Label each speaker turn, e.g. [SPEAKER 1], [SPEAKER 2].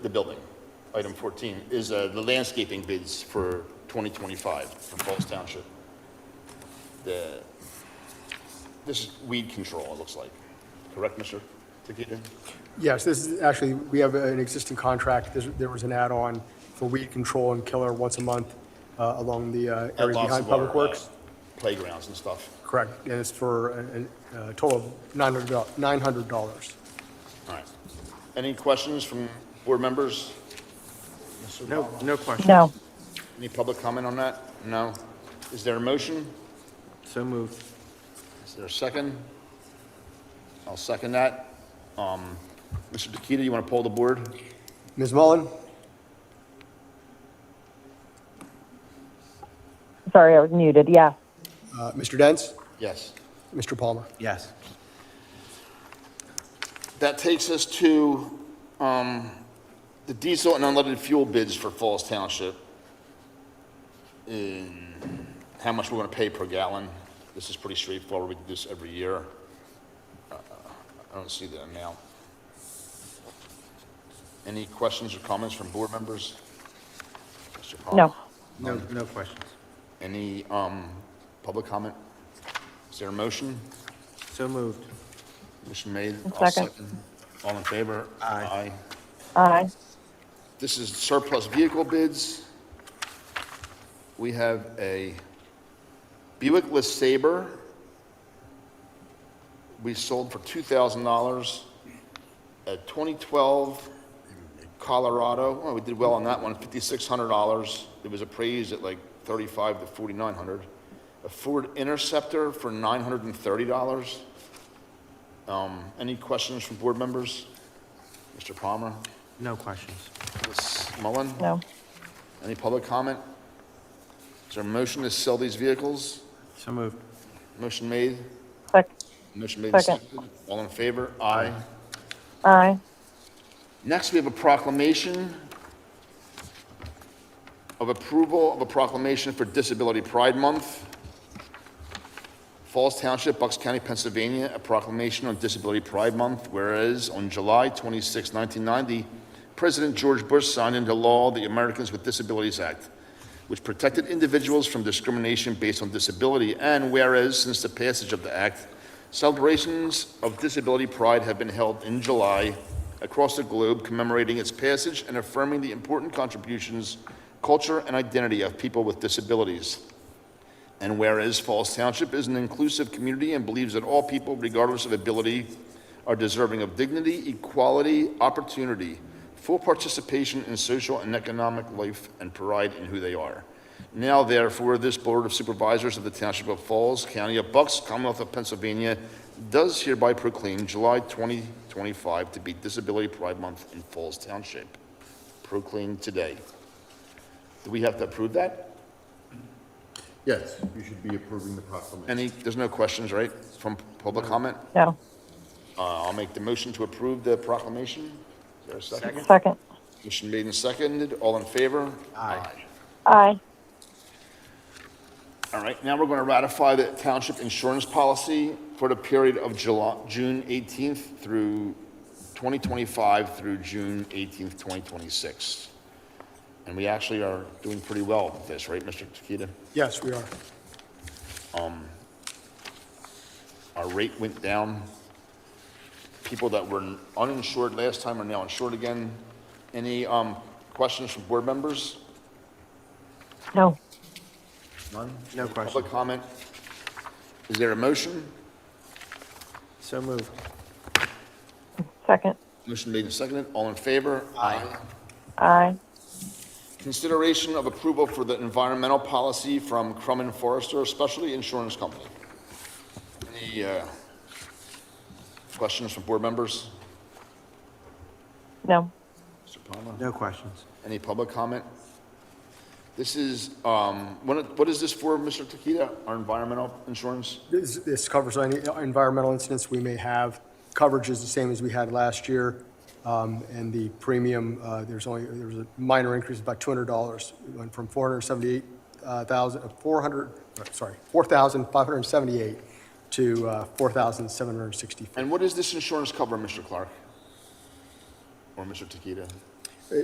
[SPEAKER 1] the building, item 14, is uh, the landscaping bids for 2025 from Falls Township. The, this is weed control, it looks like. Correct, Mr. Takita?
[SPEAKER 2] Yes, this is, actually, we have an existing contract. There's- There was an add-on for weed control and killer once a month uh, along the uh,
[SPEAKER 1] At
[SPEAKER 2] area
[SPEAKER 1] lots
[SPEAKER 2] behind
[SPEAKER 1] of our,
[SPEAKER 2] Public
[SPEAKER 1] uh,
[SPEAKER 2] Works.
[SPEAKER 1] Playgrounds and stuff.
[SPEAKER 2] Correct, and it's for a a- a total of $900. $900.
[SPEAKER 1] All right. Any questions from board members? Mr.
[SPEAKER 3] No,
[SPEAKER 1] Palma?
[SPEAKER 3] no question.
[SPEAKER 4] No,
[SPEAKER 1] Any public comment on that? No? Is there a motion?
[SPEAKER 3] So moved.
[SPEAKER 1] Is there a second? I'll second that. Um, Mr. Takita, you want to poll the board?
[SPEAKER 2] Ms. Mullen?
[SPEAKER 4] sorry, I was muted, yes.
[SPEAKER 2] uh, Mr. Dents?
[SPEAKER 1] Yes.
[SPEAKER 2] Mr. Palmer?
[SPEAKER 3] Yes.
[SPEAKER 1] That takes us to um, the diesel and unleaded fuel bids for Falls Township. And How much we're going to pay per gallon. This is pretty straightforward. We do this every year. Uh, I don't see the amount. Any questions or comments from board members? Mr. Palmer?
[SPEAKER 4] No.
[SPEAKER 3] No, no questions.
[SPEAKER 1] Any um, public comment? Is there a motion?
[SPEAKER 3] So moved.
[SPEAKER 1] Motion made.
[SPEAKER 4] I'll
[SPEAKER 1] I'll
[SPEAKER 4] second.
[SPEAKER 1] All in favor?
[SPEAKER 3] Aye.
[SPEAKER 1] Aye.
[SPEAKER 4] Aye.
[SPEAKER 1] This is surplus vehicle bids. We have a Buick LeSabre. We sold for $2,000. A 2012 Colorado, oh, we did well on that one, $5,600. It was appraised at like 35 to 4,900. A Ford Interceptor for $930. Um, Any questions from board members? Mr. Palmer?
[SPEAKER 3] No questions.
[SPEAKER 1] Ms. Mullen?
[SPEAKER 4] No,
[SPEAKER 1] Any public comment? Is there a motion to sell these vehicles?
[SPEAKER 3] So moved.
[SPEAKER 1] Motion made?
[SPEAKER 4] Sec-
[SPEAKER 1] Motion made and
[SPEAKER 4] Second.
[SPEAKER 1] seconded. All in favor? Aye.
[SPEAKER 4] aye.
[SPEAKER 1] Next, we have a proclamation of approval of a proclamation for Disability Pride Month. Falls Township, Bucks County, Pennsylvania, a proclamation on Disability Pride Month, whereas on July 26, 1990, President George Bush signed into law the Americans with Disabilities Act, which protected individuals from discrimination based on disability, and whereas since the passage of the act, celebrations of disability pride have been held in July across the globe commemorating its passage and affirming the important contributions, culture, and identity of people with disabilities. And whereas Falls Township is an inclusive community and believes that all people, regardless of ability, are deserving of dignity, equality, opportunity, full participation in social and economic life, and pride in who they are. Now therefore, this Board of Supervisors of the Township of Falls, County of Bucks, Commonwealth of Pennsylvania, does hereby proclaim July 2025 to be Disability Pride Month in Falls Township. Proclaimed today. Do we have to approve that?
[SPEAKER 5] Yes, you should be approving the proclamation.
[SPEAKER 1] Any, there's no questions, right, from public comment?
[SPEAKER 4] No,
[SPEAKER 1] Uh, I'll make the motion to approve the proclamation. Is there a second?
[SPEAKER 4] second.
[SPEAKER 1] Motion made and seconded, all in favor? Aye.
[SPEAKER 4] Aye.
[SPEAKER 1] All right, now we're going to ratify the township insurance policy for the period of July, June 18th through 2025 through June 18th, 2026. And we actually are doing pretty well with this, right, Mr. Takita?
[SPEAKER 2] Yes, we are.
[SPEAKER 1] Our rate went down. People that were uninsured last time are now insured again. Any um, questions from board members?
[SPEAKER 4] No,
[SPEAKER 1] None?
[SPEAKER 3] No
[SPEAKER 1] Any
[SPEAKER 3] question.
[SPEAKER 1] Public comment? Is there a motion?
[SPEAKER 3] So moved.
[SPEAKER 4] second.
[SPEAKER 1] Motion made and seconded. All in favor? Aye.
[SPEAKER 4] Aye.
[SPEAKER 1] Consideration of approval for the environmental policy from Crum and Forrester Specialty Insurance Company. Any uh, questions from board members?
[SPEAKER 4] No,
[SPEAKER 1] Mr. Palmer?
[SPEAKER 3] No questions.
[SPEAKER 1] Any public comment? This is, um, what what is this for, Mr. Takita? Our environmental insurance?
[SPEAKER 2] This this covers any environmental incidents we may have. Coverage is the same as we had last year, um, and the premium, uh, there's only, there was a minor increase of about $200. It went from 478,000, uh, 400, sorry, 4,578 to uh, 4,764.
[SPEAKER 1] And what does this insurance cover, Mr. Clark? Or Mr. Takita?